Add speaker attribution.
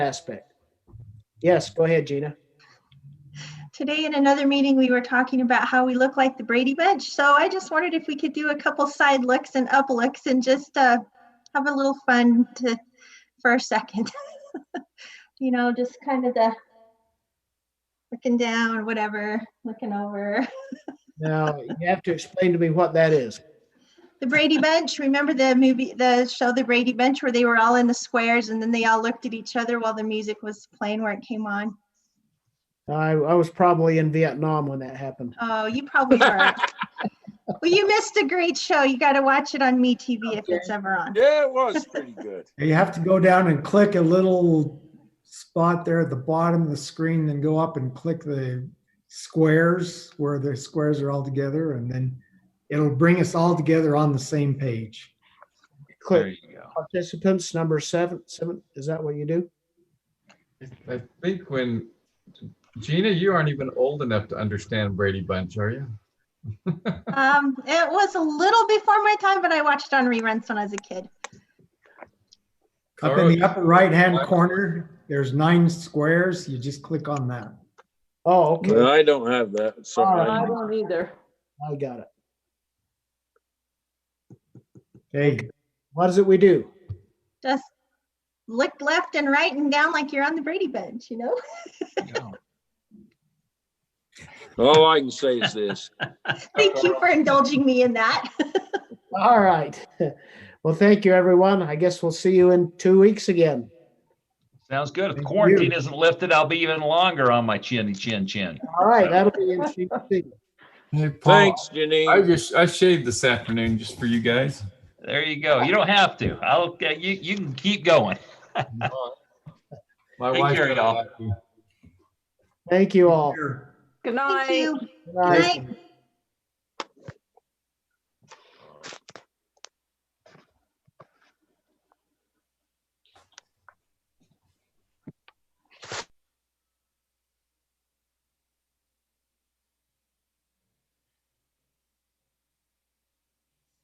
Speaker 1: aspect. Yes, go ahead, Gina.
Speaker 2: Today in another meeting, we were talking about how we look like the Brady Bunch. So I just wondered if we could do a couple side looks and up looks and just uh, have a little fun to, for a second. you know, just kind of the looking down, whatever, looking over.
Speaker 1: Now, you have to explain to me what that is.
Speaker 2: The Brady Bunch, remember the movie, the show The Brady Bunch where they were all in the squares and then they all looked at each other while the music was playing where it came on?
Speaker 1: I, I was probably in Vietnam when that happened.
Speaker 2: Oh, you probably are. well, you missed a great show. You got to watch it on MeTV if it's ever on.
Speaker 3: Yeah, it was pretty good.
Speaker 4: And You have to go down and click a little spot there at the bottom of the screen, then go up and click the squares where the squares are all together, and then it'll bring us all together on the same page.
Speaker 5: There
Speaker 1: Click
Speaker 5: you
Speaker 1: participants, number seven, seven, is that what you do?
Speaker 5: go. I think when, Gina, you aren't even old enough to understand Brady Bunch, are you?
Speaker 2: Um, it was a little before my time, but I watched on reruns when I was a kid.
Speaker 4: Up in the upper right-hand corner, there's nine squares. You just click on that.
Speaker 1: Oh, okay,
Speaker 3: I don't have that. So
Speaker 1: All
Speaker 3: I-
Speaker 6: I don't either.
Speaker 1: I got it.
Speaker 4: Okay,
Speaker 1: What is it we do?
Speaker 2: Just look left and right and down like you're on the Brady Bunch, you know?
Speaker 3: all I can say is this.
Speaker 2: Thank you for indulging me in that.
Speaker 1: All right. Well, thank you, everyone. I guess we'll see you in two weeks again.
Speaker 7: Sounds good. If
Speaker 4: Thank
Speaker 7: quarantine
Speaker 4: you.
Speaker 7: isn't lifted, I'll be even longer on my chinny chin chin.
Speaker 1: All right, that'll be interesting. to see.
Speaker 3: Thanks,
Speaker 5: I
Speaker 3: Janine.
Speaker 5: just, I shaved this afternoon just for you guys.
Speaker 7: There you go. You don't have to. I'll, uh, you, you can keep going.
Speaker 5: My
Speaker 7: Take
Speaker 5: wife.
Speaker 7: care, y'all.
Speaker 1: Thank you all.
Speaker 4: here.
Speaker 6: Good
Speaker 2: Thank
Speaker 6: night.
Speaker 2: you.
Speaker 1: Good
Speaker 2: Good
Speaker 1: night.
Speaker 2: night.